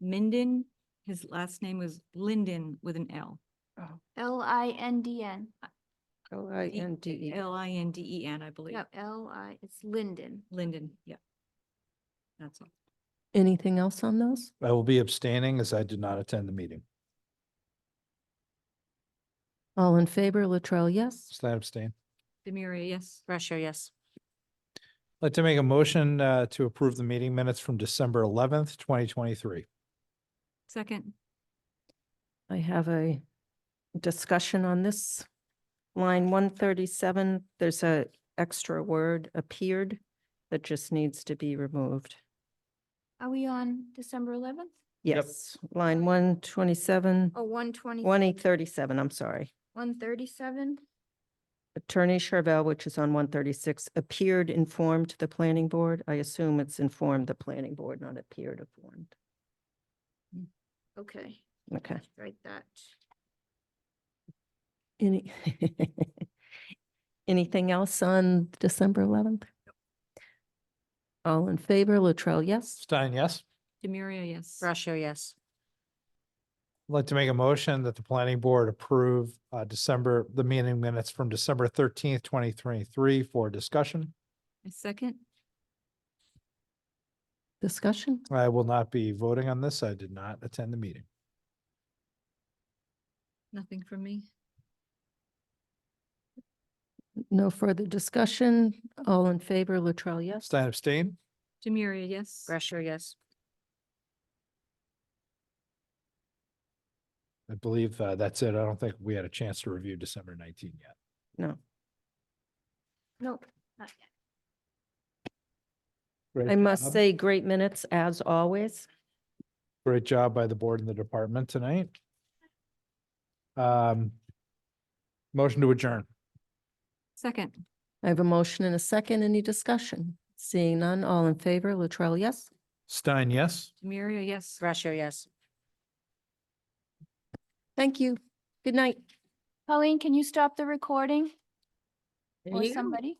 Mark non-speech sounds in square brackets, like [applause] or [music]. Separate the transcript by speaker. Speaker 1: Minden. His last name was Linden with an L.
Speaker 2: L I N D N.
Speaker 3: L I N D E.
Speaker 1: L I N D E N, I believe.
Speaker 2: Yep, L I, it's Linden.
Speaker 1: Linden, yeah. That's all.
Speaker 3: Anything else on those?
Speaker 4: I will be abstaining as I did not attend the meeting.
Speaker 3: All in favor, Latrell, yes.
Speaker 4: Slat abstain.
Speaker 1: Demiria, yes.
Speaker 5: Russia, yes.
Speaker 4: I'd like to make a motion uh, to approve the meeting minutes from December eleventh, twenty twenty-three.
Speaker 1: Second,
Speaker 3: I have a discussion on this. Line one thirty-seven, there's a extra word appeared that just needs to be removed.
Speaker 2: Are we on December eleventh?
Speaker 3: Yes, line one twenty-seven,
Speaker 2: Oh, one twenty,
Speaker 3: one eight thirty-seven, I'm sorry.
Speaker 2: one thirty-seven?
Speaker 3: Attorney Charvel, which is on one thirty-six, appeared informed the planning board. I assume it's informed the planning board, not appeared informed.
Speaker 2: Okay,
Speaker 3: Okay.
Speaker 2: write that.
Speaker 3: Any, [laughs] anything else on December eleventh? All in favor, Latrell, yes.
Speaker 4: Stein, yes?
Speaker 1: Demiria, yes.
Speaker 5: Russia, yes.
Speaker 4: I'd like to make a motion that the planning board approve uh, December, the meeting minutes from December thirteenth, twenty twenty-three for discussion.
Speaker 1: A second,
Speaker 3: Discussion?
Speaker 4: I will not be voting on this. I did not attend the meeting.
Speaker 1: nothing from me.
Speaker 3: No further discussion. All in favor, Latrell, yes.
Speaker 4: Stein abstain?
Speaker 1: Demiria, yes.
Speaker 5: Russia, yes.
Speaker 4: I believe uh, that's it. I don't think we had a chance to review December nineteen yet.
Speaker 3: No.
Speaker 2: Nope, not yet.
Speaker 4: Great
Speaker 3: I
Speaker 4: job.
Speaker 3: must say, great minutes as always.
Speaker 4: Great job by the board and the department tonight. Um, Motion to adjourn.
Speaker 1: Second,
Speaker 3: I have a motion and a second. Any discussion? Seeing none, all in favor, Latrell, yes.
Speaker 4: Stein, yes?
Speaker 1: Demiria, yes.
Speaker 5: Russia, yes.
Speaker 3: Thank you. Good night.
Speaker 2: [laughs] Colleen, can you stop the recording or somebody?